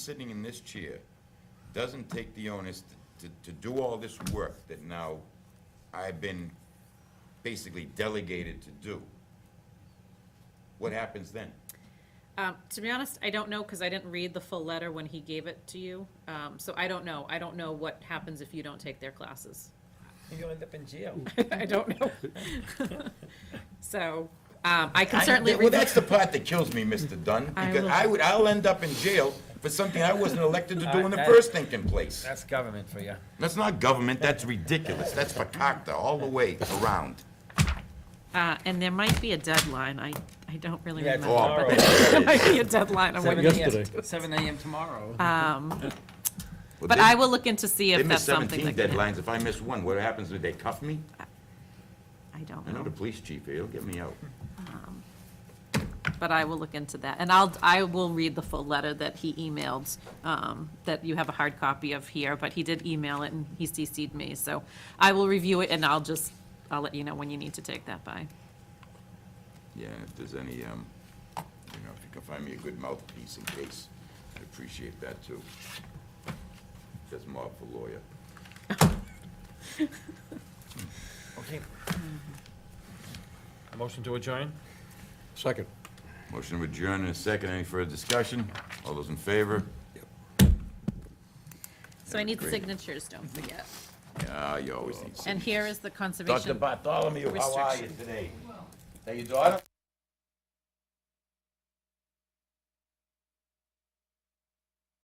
sitting in this chair doesn't take the onus to, to do all this work that now I've been basically delegated to do, what happens then? Um, to be honest, I don't know, because I didn't read the full letter when he gave it to you, um, so I don't know. I don't know what happens if you don't take their classes. You end up in jail. I don't know. So, um, I can I- certainly Well, read, that's the- the part that kills me, Mr. Dunn, I because will- I would, I'll end up in jail for something I wasn't elected to do in the I- I- first thinking place. That's government for you. That's not government, that's ridiculous, that's fakakta all the way around. uh, and there might be a deadline. I, I don't really Yeah, it's Oh, remember. tomorrow. There might be a deadline on Seven when, AM, seven AM tomorrow. Well, but then- I will look into see They if miss that's something seventeen that could. deadlines, if I miss one, what happens, do they cuff me? I don't I know the know, police chief here, he'll get me out. but I will look into that. And I'll, I will read the full letter that he emailed, um, that you have a hard copy of here, but he did email it and he CC'd me, so I will review it and I'll just, I'll let you know when you need to take that by. Yeah, if there's any, um, you know, if you can find me a good mouthpiece in case, I'd appreciate that too. That's Marv for lawyer. Okay. A Motion to adjourn? Second. Motion to adjourn in a second. Any further discussion? All those in favor? So I need Great. signatures, don't forget. Yeah, Ah, you always need. And signatures. here is the conservation. Bartholomew, how are you restriction. today? Is that your daughter?